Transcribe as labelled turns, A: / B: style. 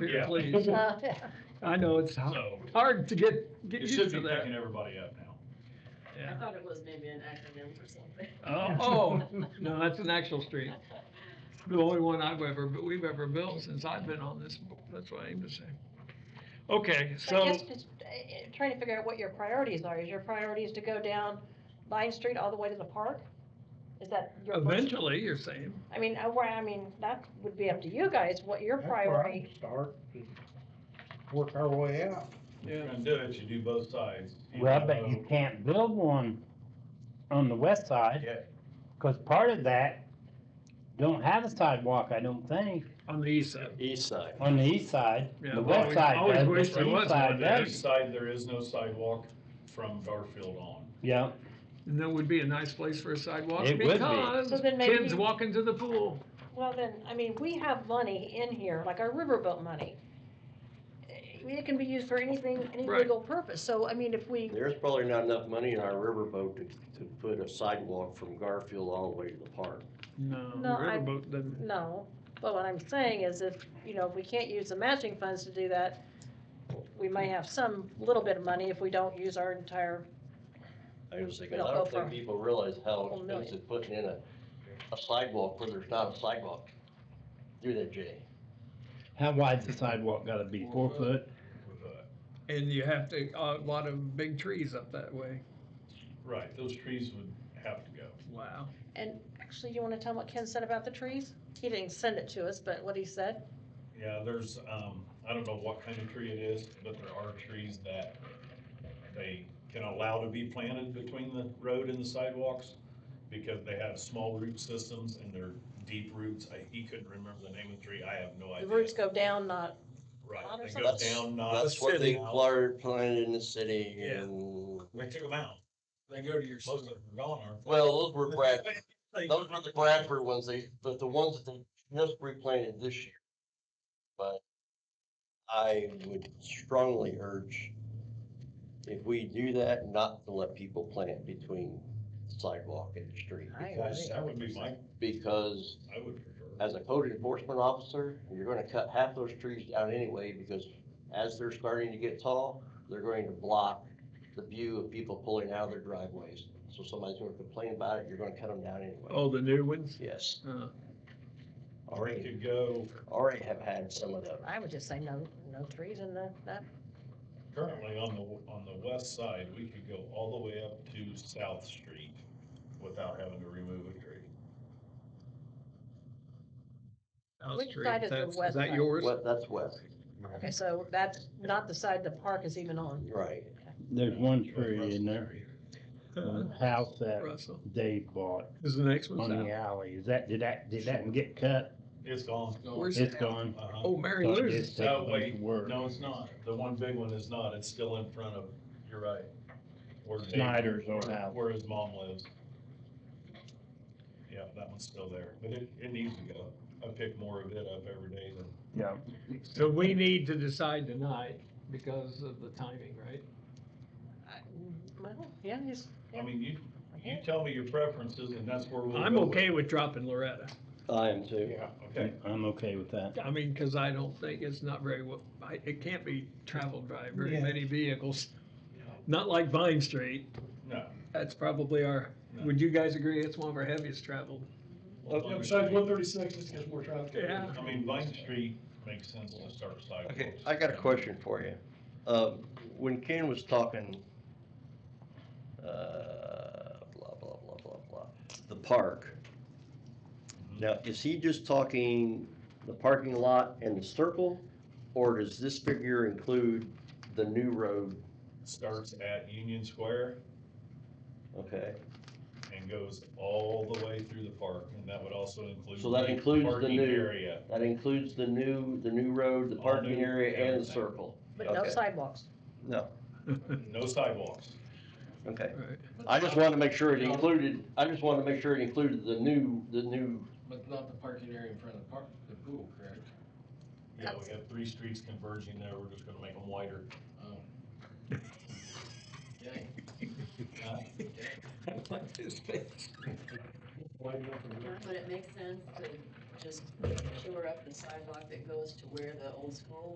A: Yeah.
B: Please,
C: Uh,
B: I know it's hard
A: So,
B: hard to get, Oh, get
A: it
B: used
A: should
B: to
A: be
B: that.
A: picking everybody up now.
D: I
B: Yeah.
D: thought it was maybe an acronym for something.
B: Oh, oh, no, that's an actual street. The only one I've ever, but we've ever built since I've been on this, bo- that's what I aim to say. Okay,
C: I
B: so,
C: guess just uh, uh, trying to figure out what your priorities are. Is your priorities to go down Vine Street all the way to the park? Is that your? first-
B: eventually, you're saying,
C: I mean, I, well, I mean, that would be up to you guys, what your
E: That's where I
C: priority.
E: Start, and work our way out.
A: If you're gonna do it, you do both sides.
F: Well, but you can't build one on the west side,
A: Yeah,
F: cause part of that don't have a sidewalk, I don't think,
B: on the east side.
G: East side.
F: on the east side.
B: Yeah,
F: The
B: well,
F: west
B: we
F: side
B: always
F: does,
B: wish
F: but
B: there
F: the
B: was
F: east
B: one
A: On
F: side
A: the east
F: does.
A: side, there is no sidewalk from Garfield on.
F: Yeah,
B: And that would be a nice place for a sidewalk
F: It would be.
B: because
C: So then maybe-
B: kids walking to the pool.
C: Well, then, I mean, we have money in here, like our riverboat money. I mean, It can be used for anything, any
B: Right.
C: legal purpose. So, I mean, if we,
G: There's probably not enough money in our riverboat to, to put a sidewalk from Garfield all the way to the park.
B: No, the
C: No, I-
B: riverboat doesn't.
C: no. But what I'm saying is if, you know, if we can't use the matching funds to do that, we may have some little bit of money if we don't use our entire
G: I was thinking,
C: No,
G: I
C: go
G: don't
C: for it.
G: think people realize how
C: Whole million.
G: expensive putting in a, a sidewalk where there's not a sidewalk through that, Jay.
F: how wide's the sidewalk gotta be, four foot?
B: And you have to, a lot of big trees up that way.
A: Right, those trees would have to go.
B: Wow.
C: And actually, you wanna tell him what Ken said about the trees? He didn't send it to us, but what he said?
A: Yeah, there's, um, I don't know what kind of tree it is, but there are trees that they can allow to be planted between the road and the sidewalks because they have small root systems and they're deep roots. I, he couldn't remember the name of the tree. I have no idea.
C: The roots go down, not,
A: Right,
C: out or
A: they go
C: something?
A: down, not.
G: That's what they
A: out.
G: planted, planted in the city
A: uh, Yeah.
G: and,
A: We took them out. They go to your. Most of them are gone, aren't
G: well, those were Brad,
A: they?
G: those were the Bradford ones, they, but the ones that they just replanted this year. But I would strongly urge, if we do that, not to let people plant between sidewalk and the street.
C: I
A: Because That would be my,
G: Because
A: I would prefer.
G: as a code enforcement officer, you're gonna cut half those trees down anyway, because as they're starting to get tall, they're going to block the view of people pulling out of their driveways. So somebody's gonna complain about it, you're gonna cut them down anyway.
B: Oh, the new ones?
G: Yes,
B: Uh,
A: Or we
G: already,
A: could go,
G: already have had some of them.
C: I would just say no, no trees in the, that,
A: currently on the, on the west side, we could go all the way up to South Street without having to remove a tree.
C: Which street, side is the that's- is west that
B: that
C: side?
B: yours?
G: Well, that's west,
C: okay, so that's not the side the park is even on.
G: right.
F: There's one tree in there, one house that
B: Russell.
F: Dave bought
B: Is the next
F: on
B: one
F: the alley, is that, did that, did that one get cut?
A: It's gone.
B: Where's
F: It's gone.
A: Uh-huh.
B: Oh, Mary
F: So it
B: Lou's.
F: just takes a
A: No,
F: bunch
A: wait,
F: of work.
A: no, it's not. The one big one is not. It's still in front of, you're right. Where Dave-
F: Snyder's old
A: where-
F: house.
A: Where his mom lives. Yeah, that one's still there, but it, it needs to go. I pick more of it up every day than.
F: Yeah.
B: So we need to decide tonight because of the timing, right?
C: I- Well, yeah, he's,
A: I mean, you, you tell me your preferences and that's where we'll.
B: I'm
A: go
B: okay with dropping Loretta.
G: I am too.
E: Yeah.
A: Okay,
F: I'm okay with that.
B: I mean, cause I don't think it's not very, well. I, it can't be traveled by very
E: Yeah.
B: many vehicles. Not like Vine Street.
A: no.
B: That's probably our,
A: No.
B: would you guys agree it's one of our heaviest traveled?
A: Well,
E: one thirty-six, just gets more traffic.
B: Yeah.
A: I mean, Vine Street makes sense to start sidewalks.
G: Okay, I got a question for you. Um, when Ken was talking, uh, blah, blah, blah, blah, blah, the park.
A: Mm-hmm.
G: Now, is he just talking the parking lot and the circle? Or does this figure include the new road,
A: Starts at Union Square
G: okay?
A: and goes all the way through the park, and that would also include.
G: So that includes the
A: parking
G: new-
A: Area.
G: That includes the new, the new road, the
A: All
G: parking
A: new,
G: area and the
A: everything.
G: circle?
C: but no
G: Okay.
C: sidewalks.
G: No,
A: No sidewalks.
G: okay.
B: Right.
G: I just wanted to make sure it included, I just wanted to make sure it included the new, the new
H: But not the parking area in front of the park, the pool, correct?
A: Yeah, we have three streets converging there, we're just gonna make them wider.
H: Oh. Okay.
D: Would it make sense to just shore up the sidewalk that goes to where the old school